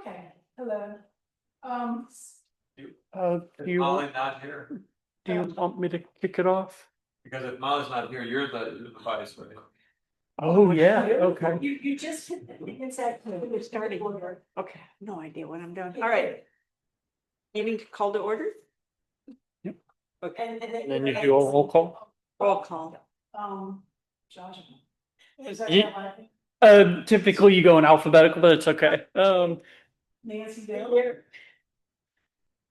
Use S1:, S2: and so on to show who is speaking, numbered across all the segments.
S1: Okay, hello. Um,
S2: Uh, do
S3: Is
S2: you,
S3: Molly
S2: want-
S3: not here?
S2: do you want me to kick it off?
S3: Because if Molly's not here, you're the, you're the vice, right?
S2: Oh, yeah, okay.
S1: you, you just hit the, it's that,
S4: We're starting.
S1: order.
S4: Okay, no idea what I'm doing. All right, meeting to call to order,
S1: And, and then.
S2: And then you do a roll call?
S4: roll call.
S1: Um, Josh. Is
S2: Ye-
S1: that right?
S2: Um, typically you go in alphabetical, but it's okay. Um,
S1: Nancy Dale?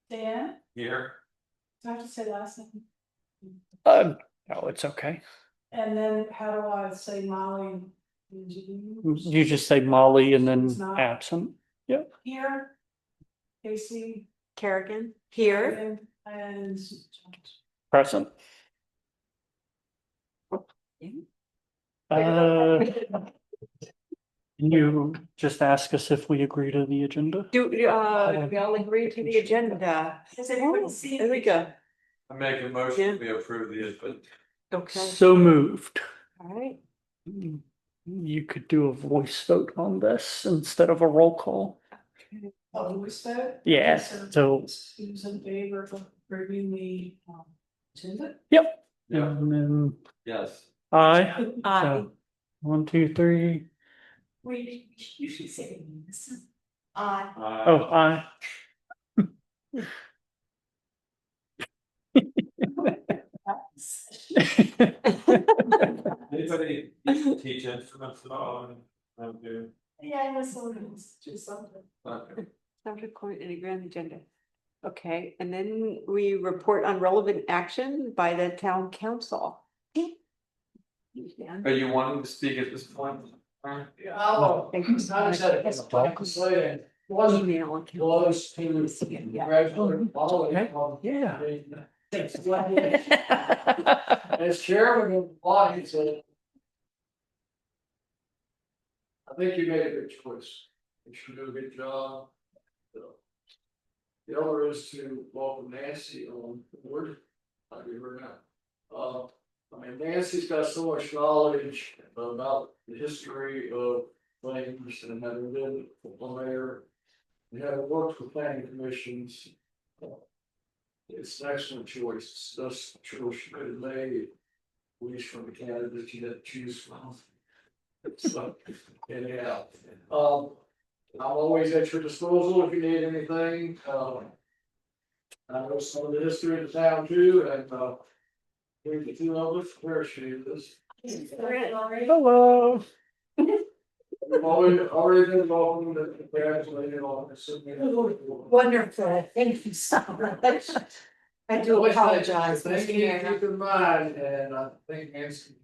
S1: Dan,
S3: Here,
S1: do I have to say last name?
S2: um, no, it's okay.
S1: And then how do I say Molly? and Jean?
S2: You just say Molly and then
S1: It's not-
S2: absent.
S1: Here. Casey.
S4: Kerrigan, here,
S1: And. and
S2: Present. Uh, can you just ask us if we agree to the agenda?
S4: do, do, uh, we all agree to the agenda.
S1: Has everybody seen?
S4: Oh, There we go.
S3: I make a motion, we approve the, but
S4: Okay,
S2: So moved.
S4: all right,
S2: You could do a voice vote on this instead of a roll call.
S1: Oh, Louis vote?
S2: Yeah,
S1: So-
S2: so,
S1: Who's in favor of approving the, um, agenda?
S2: yep.
S3: yeah,
S2: And then
S3: yes.
S2: um, I,
S4: aye,
S2: so, one, two, three.
S1: We usually say this. Uh,
S2: Oh, I.
S3: Anybody teach instruments at all? I do.
S1: yeah, I know someone who's do something.
S3: Okay.
S4: sound recorded in a grand agenda. Okay, and then we report on relevant action by the town council.
S3: Are you wanting to speak at this point?
S5: Oh,
S4: Thank you so much.
S5: Wasn't
S4: Email account.
S5: close to regular quality of-
S2: Yeah.
S5: As chairman of the body said. I think you made a good choice. You should do a good job. So, The other is to welcome Nancy on board. I give her now. Uh, I mean, Nancy's got so much knowledge about the history of things and having been a mayor. And having worked for planning commissions. uh, It's an excellent choice, it's just choice you could have made. Wish from the candidates you didn't choose from. So, anyhow, um, I'm always at your disposal if you need anything, um. I know some of the history of the town too, and, uh. Here's the two of us, where she is,
S2: Hello.
S5: we've already, already been involved in the, congratulated on this.
S1: Wonderful, thank you so much.
S4: I do
S5: Always nice.
S4: apologize,
S5: Thank
S4: Mr.
S5: you,
S4: Mayor.
S5: keep in mind, and I think Nancy.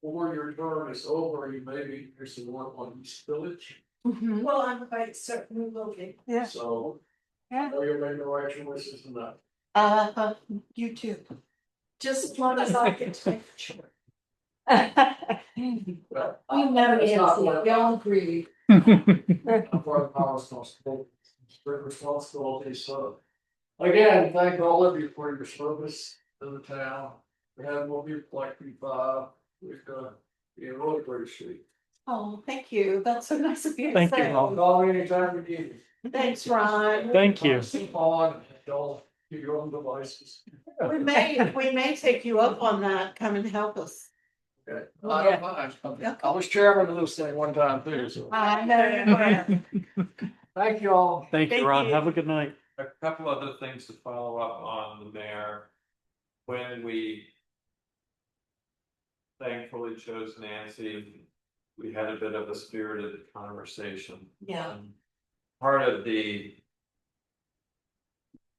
S5: Before your term is over, you maybe there's some work on East Village,
S4: Mhm.
S1: Well, I'm quite certain we will be.
S4: Yeah.
S5: so.
S4: Yeah.
S5: Know you're making the right choices and that.
S1: Uh, you too. Just as long as I can take. Sure.
S5: Well,
S1: You know,
S5: It's
S1: Nancy,
S5: not what-
S1: we all agree.
S5: I'm part of our responsibility, strict responsibility, so. Again, thank all of you for your service to the town, we have more people like you, Bob, we've got, you really appreciate.
S1: Oh, thank you, that's so nice of you. to
S2: Thank you.
S1: say.
S5: I'll call you anytime you need me.
S1: Thanks, Ron.
S2: Thank you.
S5: Keep on, don't do your own devices.
S6: We may, we may take you up on that, come and help us.
S5: Okay. I don't mind. I was chairman of this thing one time too, so.
S6: I know.
S5: Thank you all.
S2: Thank
S6: Thank
S2: you, Ron.
S6: you.
S2: Have a good night.
S3: A couple other things to follow up on the mayor. When we. Thankfully chose Nancy, we had a bit of a spirited conversation.
S6: Yeah.
S3: Part of the.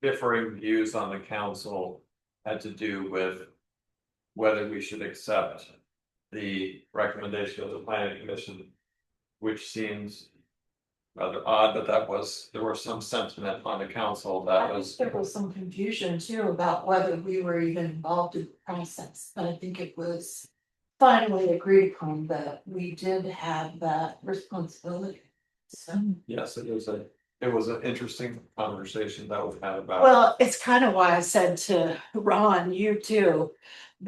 S3: Differing views on the council had to do with. Whether we should accept the recommendation of the planning commission. Which seems. Rather odd, but that was, there was some sentiment on the council that
S6: I
S3: was.
S6: think there was some confusion too about whether we were even involved in the process, but I think it was. Finally agreed upon that we did have that responsibility. So,
S3: Yes, it was a, it was an interesting conversation that was had about.
S6: well, it's kind of why I said to Ron, you too.